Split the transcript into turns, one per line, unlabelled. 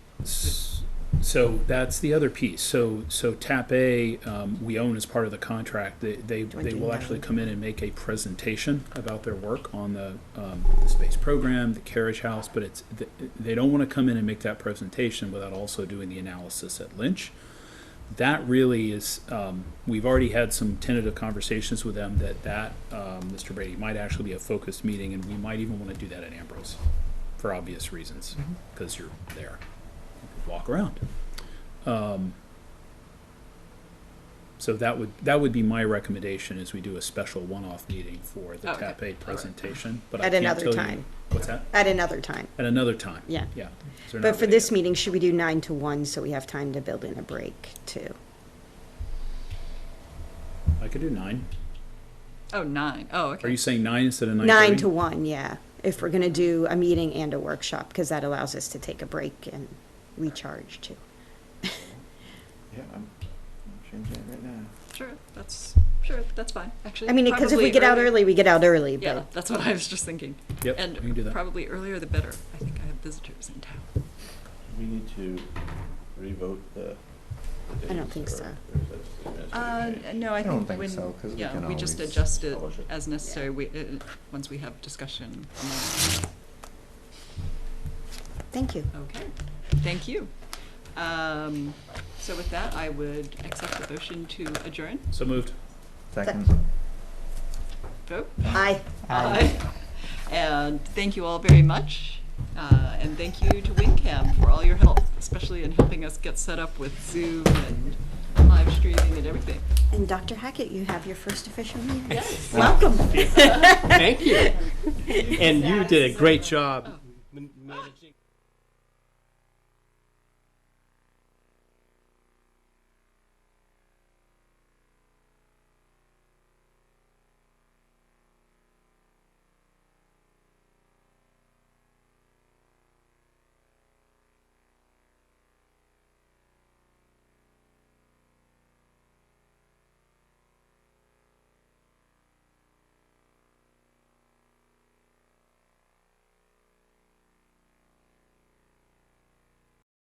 S- So that's the other piece. So, so TAP A, um, we own as part of the contract. They, they, they will actually
29.
come in and make a presentation about their work on the, um, the space program, the carriage house, but it's, th- they don't want to come in and make that presentation without also doing the analysis at Lynch. That really is, um, we've already had some tentative conversations with them that that, um, Mr. Brady, might actually be a focused meeting and we might even want to do that at Ambrose for obvious reasons,
Mm-hmm.
because you're there walk around. Um, so that would that would be my recommendation is we do a special one-off meeting for the
Okay.
TAP aid presentation, but I
At
can't
another
tell
time,
You, what's that?
at another time,
At another time.
yeah.
Yeah. So they're
But
not
for
ready
this
yet.
meeting, should we do nine to one so we have time to build in a break too?
I could do nine.
Oh, nine. Oh,
Are
okay.
you saying nine instead of nine?
Nine to one, yeah, if we're gonna do a meeting and a workshop, because that allows us to take a break and recharge too.
Yeah, I'm I'm changing it right now.
Sure, that's, sure, that's fine, actually.
I mean, because if we
probably
get out early, we get out early,
Yeah,
but,
that's what I was just thinking.
Yep.
And
we can do that.
probably earlier the better. I think I have visitors in town.
We need to revote the. the
I don't
dates,
think
or
so.
there's a administrative
Uh,
change.
no, I
I don't
think
think so,
when,
'cause we
yeah,
can
we just
always
adjust it
publish it.
as necessary, we, uh, once we have discussion.
thank you.
Okay, thank you. Um, so with that, I would accept the motion to adjourn.
So moved.
Second.
Vote?
Aye. Um,
Aye. And thank you all very much. Uh, and thank you to WinCam for all your help, especially in helping us get set up with Zoom and live streaming and everything.
And Dr. Hackett, you have your first official meeting.
Yes.
Welcome.
Thank you. And you did a great job